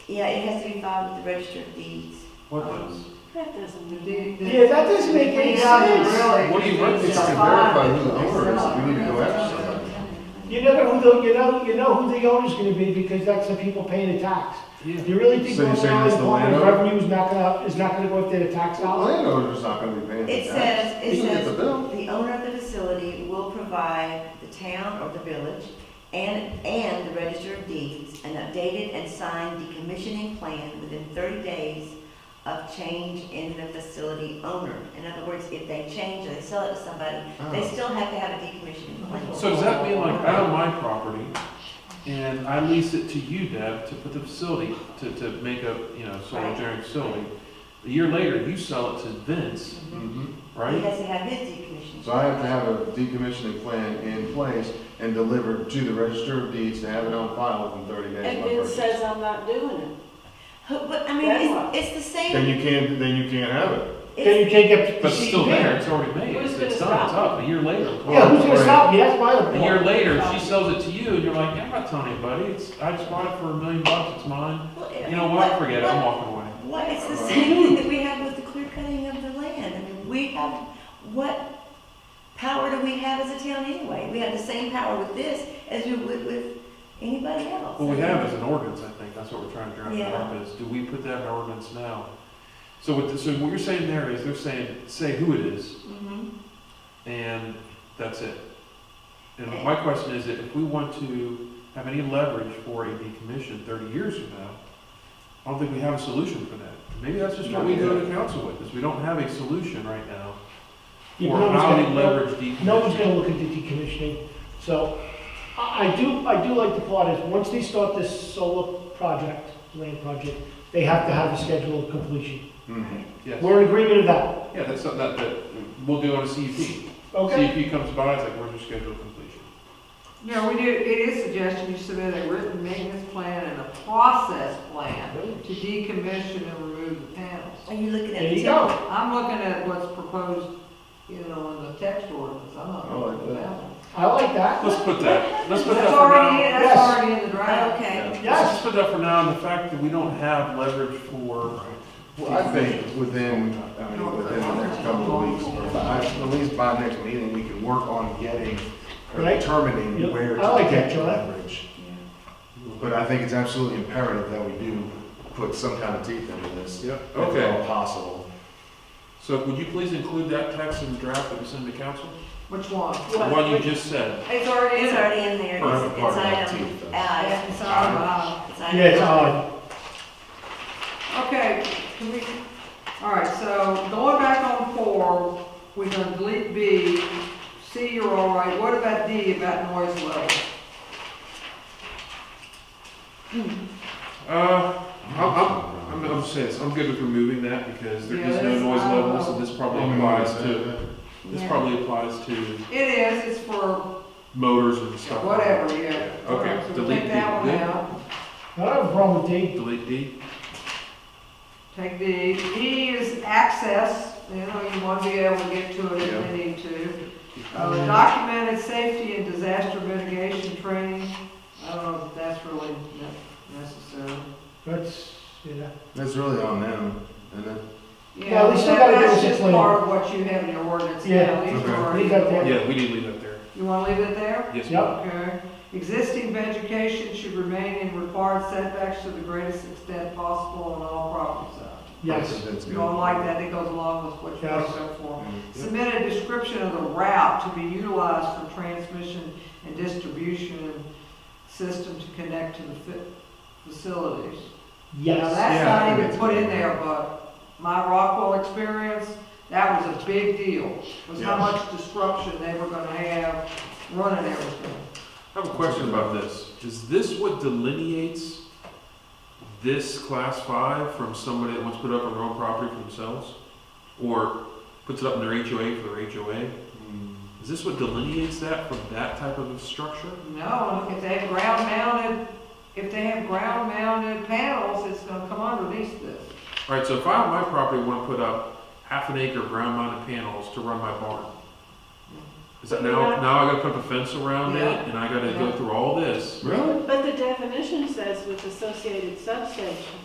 Yeah, it has to be filed with the register of deeds. What does? That doesn't mean. Yeah, that doesn't make any sense. What do you want? Um, It's to verify who the owner is, we need to go after somebody. You never who the, you know, you know who the owner's gonna be because that's the people paying the tax. You really think So you're Long saying Island it's the Department of landowner? Revenue is not gonna, is not gonna go up there to tax The dollars? landowner's not gonna be paying the It tax. says, He it can get says, the bill. the owner of the facility will provide the town or the village and, and the register of deeds an updated and signed decommissioning plan within thirty days of change in the facility owner. In other words, if they change or they sell it to somebody, they still have to have a decommissioning plan. Oh. So does that mean like I own my property and I lease it to you, Deb, to put the facility, to, to make a, you know, solar Right. generating facility? A year later, you sell it to Vince, Mhm. He right? has to have his decommissioning. So I have to have a decommissioning plan in place and delivered to the register of deeds to have it on file within thirty days. And of my Ben purchase. says I'm not doing it. Who- But, I mean, That's what- it's, it's the Then same, you can't, then you can't have it. Then it's, you can't get the But it's still there, CEP. it's already made, Who's it's gonna it's done, stop it's up, a year later. Yeah, who's gonna Right. stop you? That's my other A year point. later, she sells it to you and you're like, yeah, I'm not telling anybody, it's, I just bought it for a million bucks, it's mine. well, You know what, forget it, I'm what- walking away. What, it's the same thing that we have with the clear cutting of the land. I mean, we have, what power do we have as a town anyway? We have the same power with this as we would with anybody else. What we have is an ordinance, I think, that's what we're trying to draft Yeah. up, is do we put that in ordinance now? So what, the- so what you're saying there is, they're saying, say who it is, Mhm. and that's it. And my question is, that if we want to have any leverage for a decommission thirty years from now, I don't think we have a solution for that. Maybe that's just what we go to council with, is we don't have a solution right now Yeah, for but nobody's how to gonna- leverage No one's decommission. gonna look at the decommissioning, so I, I do, I do like the part is, once they start this solar project, land project, they have to have a schedule of completion. Mhm. Yes. We're in agreement of that, Yeah, that's something that, that we'll do on a E CUP. okay? CUP E comes by, it's like, where's your schedule of completion? No, we do, it is suggestion you submit a written maintenance plan and a process plan to decommission and remove the panels. Are you looking at? There you the go. town? I'm looking at what's proposed, you know, in the text ordinance, I'm not I like looking at that. that one. I like that. Let's put that, let's put that That's Oh, for already, now. in- that's Yes. already in the draft. Okay. Let's Yes. just put that for now, and the fact that we don't have leverage for. Well, I think within, I mean, within the next couple of weeks, or by- at least by next meeting, we can work on getting, or Right. determining Yep. where I like to get that, the Joe. leverage. But I think it's absolutely imperative that we do put some kind of teeth into this, Yep. if at Okay, all possible. so would you please include that text in the draft that we send to council? Which one? What you just said. It's already It's in there. already in there. Or It's, it's part of that item, teeth, though. uh, Yeah, it's it's item- on, uh, it's Yeah, it's item- odd. Okay, can we, all right, so going back on four, we're gonna delete B, C, you're all right, what about D about noise level? Mm. Uh, I'm, I'm, I'm, I'm just saying, this, I'm good with removing that because there is no Yes, noise I level, so will. this probably applies to, this Yeah. probably applies to It is, it's for motors and stuff. like that. whatever, yeah. Okay, So we'll delete Take D. that one Good. out, I don't have a problem with D. Delete D. take D, E is access, you know, you want to be able to get to it if Yeah. you need to. Uh, documented safety and disaster mitigation training, I don't know if that's really ne- necessary. That's, yeah. That's really on them, and then, Yeah, we still gotta that- give us That's a just plan. part of what you have in your ordinance now. Yeah. These Okay. are- Leave that there. Yeah, we need to leave that there. You wanna leave it there? Yes. Yep. Okay. Existing vegetation should remain in required setbacks to the greatest extent possible on all property sides. Yes. that's good. You all like that, it goes along with what you're Yes. looking for. Yeah. Submit a description of the route to be utilized for transmission and distribution system to connect to the fi- facilities. Now, Yes. that's Yeah, I not think even it's put in good. there, but my Rockwell experience, that was a big deal, was how Yeah. much disruption they were gonna have running everything. I have a question about this. Is this what delineates this class five from somebody that wants to put up on their own property for themselves? Or puts it up in their HOA for their HOA? Mm. Is this what delineates that from that type of structure? No, if they have ground mounted, if they have ground mounted panels, it's gonna come underneath this. Alright, so if I on my property want to put up half an acre of ground mounted panels to run my barn. Is that now, now I gotta put up a fence around it and I gotta go through all this? Really? But the definition says with associated substation.